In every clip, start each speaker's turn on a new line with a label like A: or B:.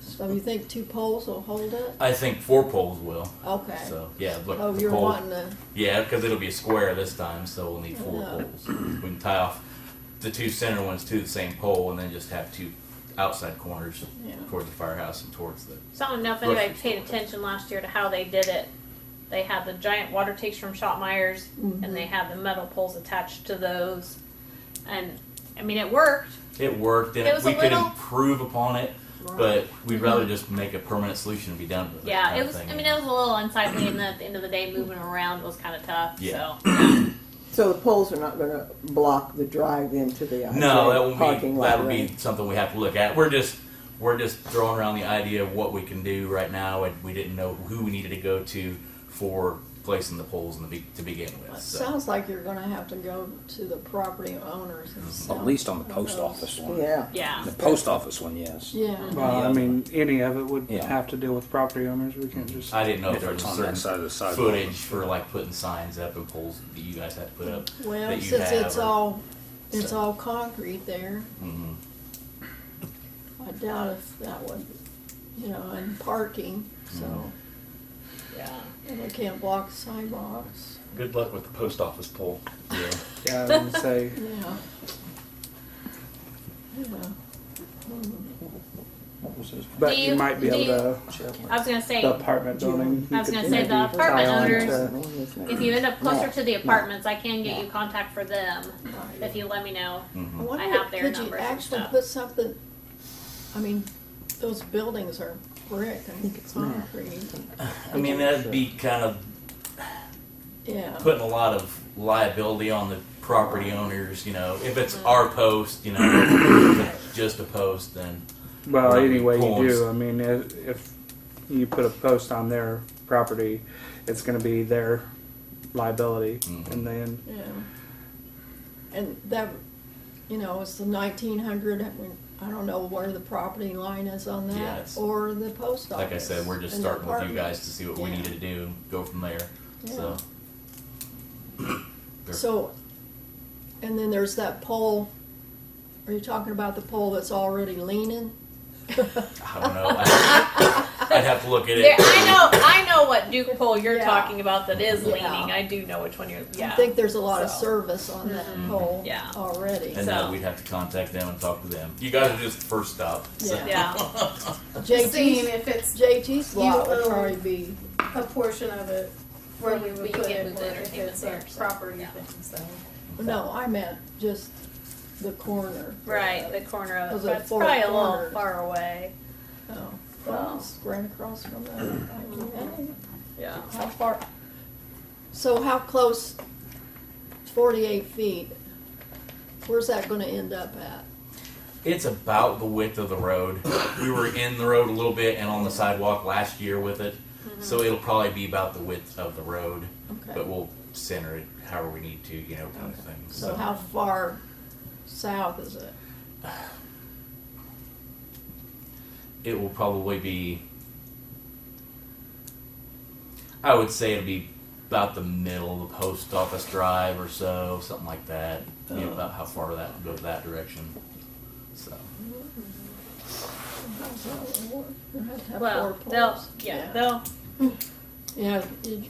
A: So you think two poles will hold it?
B: I think four poles will.
A: Okay.
B: So yeah, but
A: Oh,
B: the
A: you're
B: pole-
A: wanting to,
B: Yeah, because it'll be a square this time, so we'll need four
A: Yeah.
B: poles. We can tie off the two center ones to the same pole, and then just have two outside corners
A: Yeah.
B: towards the firehouse and towards the.
C: So I don't know if
B: Grocery
C: anybody paid attention last year to how they did it. They had the giant water tanks from Shot Myers,
A: Mm-hmm.
C: and they had the metal poles attached to those. And I mean, it worked.
B: It worked, and
C: It was
B: we
C: a
B: could
C: little-
B: improve upon it, but we'd rather just make a permanent solution and be done with it.
C: Yeah,
B: kind
C: it
B: of
C: was.
B: thing.
C: I mean, it was a little unsightly, and at the end of the day, moving around was kind of tough.
B: Yeah.
C: So
D: So the poles are not gonna block the drive into the
B: No, that
D: IJ
B: won't be,
D: parking lot,
B: that'll be
D: right?
B: something we have to look at. We're just, we're just throwing around the idea of what we can do right now, and we didn't know who we needed to go to for placing the poles in the, be- to begin with, so.
A: sounds like you're gonna have to go to the property owners and sell.
E: At least on the post
A: those.
E: office one.
D: Yeah.
C: yeah,
E: The post office one, yes.
A: Yeah,
F: Well, I mean, any of it would
E: Yeah.
F: have to deal with property owners. We can't just.
B: I didn't know if
E: If
B: there was
E: it's
B: a
E: on that
B: certain
E: side of the sidewalk.
B: footage for like putting signs up and poles that you guys had to put up.
A: well,
B: that you
A: since
B: have
A: it's
B: or-
A: all, it's
B: so-
A: all concrete there,
B: Mhm.
A: I doubt if that would, you know, and parking, so.
C: yeah.
A: And they can't block sidewalks,
B: Good luck with the post office pole. Yeah.
F: Yeah, I would say.
A: yeah. Yeah.
F: But
C: Do
F: you,
C: you-
F: might be
C: do
F: able
C: you-
F: to.
C: I was gonna say,
F: The apartment building.
C: I was
F: you
C: gonna
F: could
C: say the
F: maybe
C: apartment
F: tie on
C: owners-
F: to-
C: if you end up closer
D: No,
C: to the
D: no.
C: apartments, I can get you contact for them if you let me know.
A: I wonder,
C: have their
A: could you
C: numbers and
A: actually
C: stuff.
A: put something, I mean, those buildings are brick and concrete,
B: I mean, that'd be kind of
A: yeah.
B: putting a lot of liability on the property owners, you know, if
A: Mm-hmm.
B: it's our post, you know, if it's just a post, then
F: Well,
B: Right,
F: anyway, you
B: poles.
F: do. I mean, if, if you put a post on their property, it's going to be their liability,
B: Mhm.
F: and then
A: Yeah. And that, you know, it's the nineteen hundred, I don't know where the property line is on that,
B: Yes.
A: or the post office.
B: like I said, we're just
A: and the
B: starting with you
A: apartment.
B: guys to see what we
A: Yeah.
B: need to do, and go from there, so. There-
A: So, and then there's that pole, are you talking about the pole that's already leaning?
B: I don't know, I'd I'd have to look at
C: There,
B: it.
C: I know, I know what Duke pole you're
A: Yeah.
C: talking about that is
A: Yeah.
C: leaning. I do know which one you're. Yeah.
A: I think there's a lot of
C: So.
A: service on that pole
C: Yeah.
A: already.
B: Mm-hmm. And then
C: So-
B: we'd have to contact them and talk to them. You guys are just the first stop, so.
A: Yeah.
C: yeah.
G: seeing
A: JT's,
G: if it's
A: JT's lot
G: You
A: would
G: own-
A: probably be,
G: a portion of it where we
C: But you
G: would put
C: can't
G: it,
C: move
G: or
C: the
G: if
C: entertainment
G: it's
C: there,
G: a
C: so,
G: property
C: yeah.
G: thing, so.
A: no, I meant just the corner.
C: Right, the corner of
A: Those
C: it.
A: are
C: but It's
A: four
C: probably a little
A: corners.
C: far away.
A: Oh, well, it's right across from that. Okay.
C: Yeah.
A: How far, so how close, forty-eight feet, where's that gonna end up at?
B: It's about the width of the road. We were in the road a little bit and on the sidewalk last year with it,
A: Mm-hmm.
B: so it'll probably be about the width of the road.
A: Okay.
B: But we'll center it however we need to, you know, kind of thing.
A: So how far south is it?
B: it will probably be. I would say it'll be about the middle of the post office drive or so, something like that. You know, about how far that would go that direction. So
A: You'll have to have
C: Well,
A: four
C: they'll.
A: poles.
C: Yeah, they'll.
A: Yeah, you-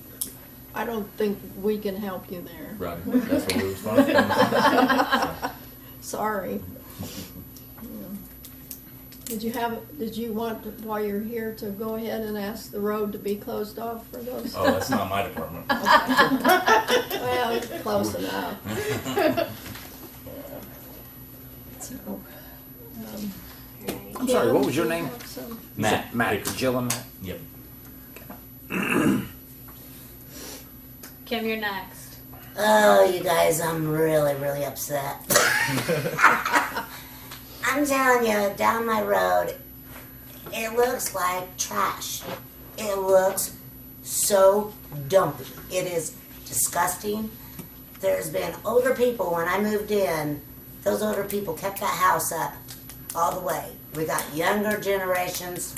A: I don't think we can help you there,
B: right, that's what we were responsible.
A: sorry. Yeah. Did you have, did you want, to- while you're here, to go ahead and ask the road to be closed off for those?
B: Oh, that's not my department.
A: Well, close enough. So, um,
E: I'm sorry, what was your name?
A: so-
B: Matt.
E: Matt, Jill and Matt.
B: Yep.
C: Kim, you're next.
H: Oh, you guys, I'm really, really upset. I'm telling you, down my road, it looks like trash. It looks so dumpy. It is disgusting. There's been older people when I moved in, those older people kept that house up all the way. We got younger generations.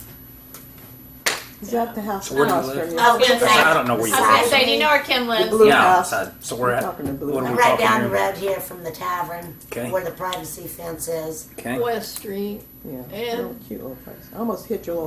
D: Is that the house
E: So where do you
D: across
E: live?
D: from you?
H: Oh, good
E: I
H: night.
E: don't know where
C: I was
E: you
C: gonna
H: Sorry.
E: live.
C: say, do you know where Kim lives?
D: blue
E: Yeah,
D: house.
E: outside. So we're
D: We're
E: at,
D: talking to Blue
E: what are we
D: House.
E: talking
H: Right down the
E: here?
H: road here from the tavern,
E: Okay.
H: where the privacy fence is.
E: Okay.
A: West Street,
D: Yeah,
A: And-
D: real cute little place. I almost hit your little